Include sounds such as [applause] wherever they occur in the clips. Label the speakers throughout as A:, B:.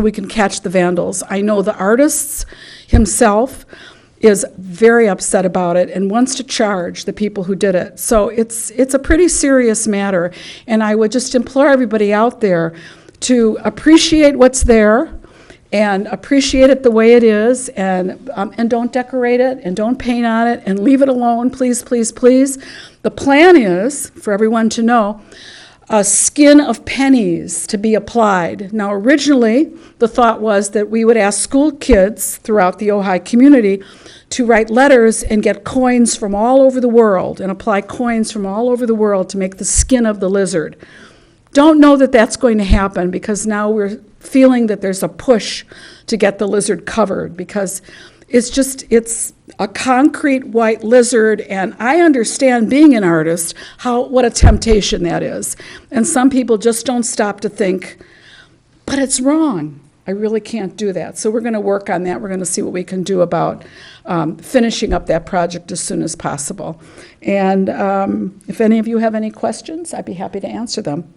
A: we can catch the vandals. I know the artists himself is very upset about it and wants to charge the people who did it. So it's, it's a pretty serious matter, and I would just implore everybody out there to appreciate what's there and appreciate it the way it is, and, um, and don't decorate it, and don't paint on it, and leave it alone, please, please, please. The plan is, for everyone to know, a skin of pennies to be applied. Now, originally, the thought was that we would ask school kids throughout the Ojai community to write letters and get coins from all over the world and apply coins from all over the world to make the skin of the lizard. Don't know that that's going to happen because now we're feeling that there's a push to get the lizard covered because it's just, it's a concrete white lizard, and I understand being an artist, how, what a temptation that is. And some people just don't stop to think, but it's wrong. I really can't do that. So we're going to work on that. We're going to see what we can do about um, finishing up that project as soon as possible. And um, if any of you have any questions, I'd be happy to answer them.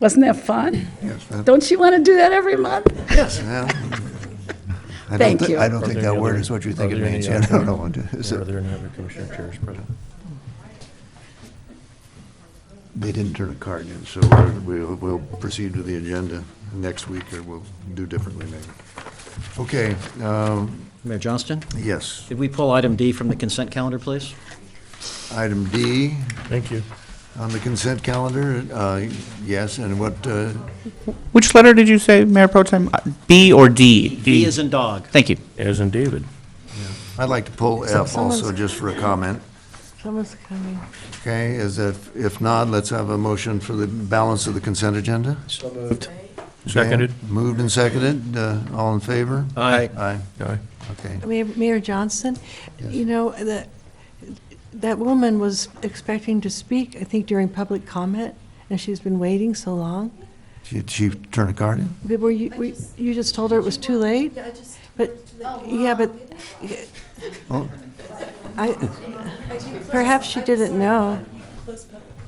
A: Wasn't that fun?
B: Yes, ma'am.
A: Don't you want to do that every month? [laughs]
B: Yes, ma'am. I don't
A: Thank
B: thi-
A: you.
B: I don't
C: Are
B: think
C: there
B: that
C: any
B: word
C: other-
B: is what you
C: are
B: think it
C: there any
B: means. [laughs] I
C: other-
B: don't know. Is
C: Are
B: it-
C: there any other commissioner chairs present?
B: They didn't turn a card in, so we're- we'll, we'll proceed with the agenda next week, or we'll do differently maybe. Okay, um,
D: Mayor Johnston,
B: yes,
D: did we pull item D from the consent calendar, please?
B: item D
C: Thank you.
B: on the consent calendar, uh, yes, and what, uh,
E: Which letter did you say, Mayor Pro Tem? Uh, B or D?
D: D is in dog.
E: Thank you.
C: As in David.
B: I'd like to pull F also, just for a comment.
F: Someone's coming.
B: Okay, is that, if not, let's have a motion for the balance of the consent agenda.
C: So moved.
B: Jan,
C: Seconded.
B: Moved and seconded, uh, all in favor?
C: Aye.
B: Aye,
C: Aye.
B: okay.
F: Mayor Mayor Johnston, you know, that, that woman was expecting to speak, I think during public comment, and she's been waiting so long.
B: Did she turn a card in?
F: But Were you, were- you just told her it was too late? Yeah, I just. But, yeah, but,
B: Oh,
F: I, perhaps she didn't know.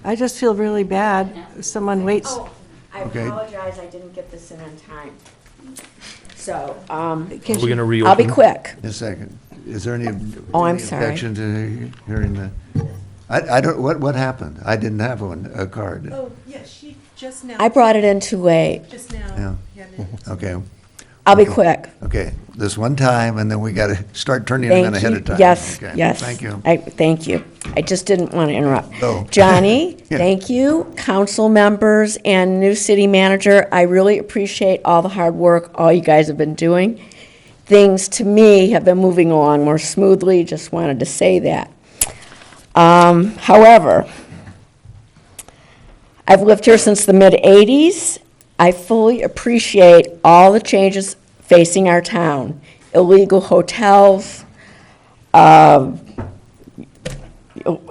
F: I just feel really bad, if someone waits.
G: Oh, I
B: Okay.
G: apologize, I didn't get this in on time. So, um,
F: Can
C: We're
F: she-
C: going to reopen.
G: I'll be quick.
B: just a second. Is there any?
G: Oh, I'm
B: any
G: sorry.
B: Objection to hearing the, I, I don't, what, what happened? I didn't have one, a card.
H: Oh, yeah, she just now.
G: I brought it in too late.
H: Just
B: Yeah.
H: now. Yeah.
B: Okay,
G: I'll be quick.
B: okay, this one time, and then we gotta start turning them in
G: Thank
B: ahead
G: you.
B: of time.
G: Yes,
B: Okay,
G: yes.
B: Thank you. [laughs]
G: I, thank you. I just didn't want to interrupt.
B: No. [laughs]
G: Johnny,
B: Yeah.
G: thank you, council members and new city manager. I really appreciate all the hard work all you guys have been doing. Things to me have been moving along more smoothly, just wanted to say that. Um, however, I've lived here since the mid-'80s. I fully appreciate all the changes facing our town. Illegal hotels,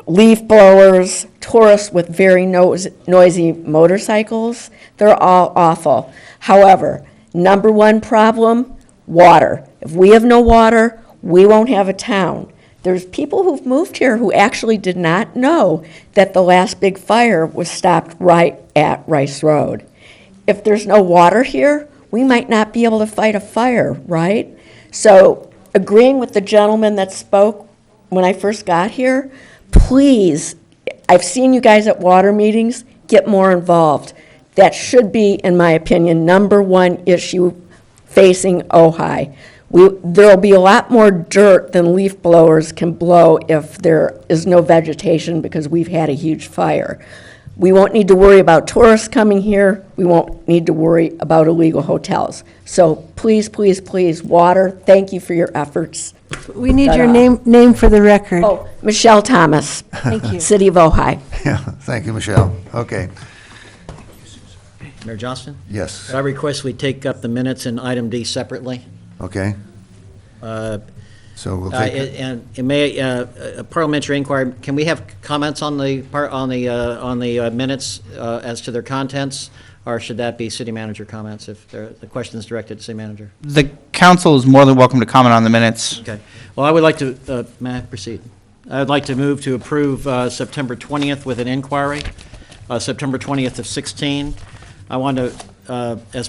G: leaf blowers, tourists with very nos- noisy motorcycles. They're all awful. However, number one problem water. If we have no water, we won't have a town. There's people who've moved here who actually did not know that the last big fire was stopped right at Rice Road. If there's no water here, we might not be able to fight a fire, right? So, agreeing with the gentleman that spoke, when I first got here, please, I've seen you guys at water meetings, get more involved. That should be, in my opinion, number one issue facing Ojai. We, there'll be a lot more dirt than leaf blowers can blow if there is no vegetation because we've had a huge fire. We won't need to worry about tourists coming here. We won't need to worry about illegal hotels. So please, please, please, water, thank you for your efforts.
F: We need your name, name for the record.
G: Oh, Michelle Thomas. Thank
F: you.
G: City of Ojai.
B: Yeah, thank you, Michelle. Okay,
D: Mayor Johnston,
B: yes,
D: could I request we take up the minutes in item D separately?
B: okay,
D: Uh,
B: so we'll
D: uh,
B: take,
D: And and may, uh, a parliamentary inquiry, can we have comments on the, par- on the, uh, on the uh, minutes uh, as to their contents? Or should that be city manager comments if there- the question is directed to city manager?
E: The council is more than welcome to comment on the minutes.
D: Okay. Well, I would like to, uh, may I proceed? I'd like to move to approve uh, September 20th with an inquiry, uh, September 20th of 16. I want to uh, as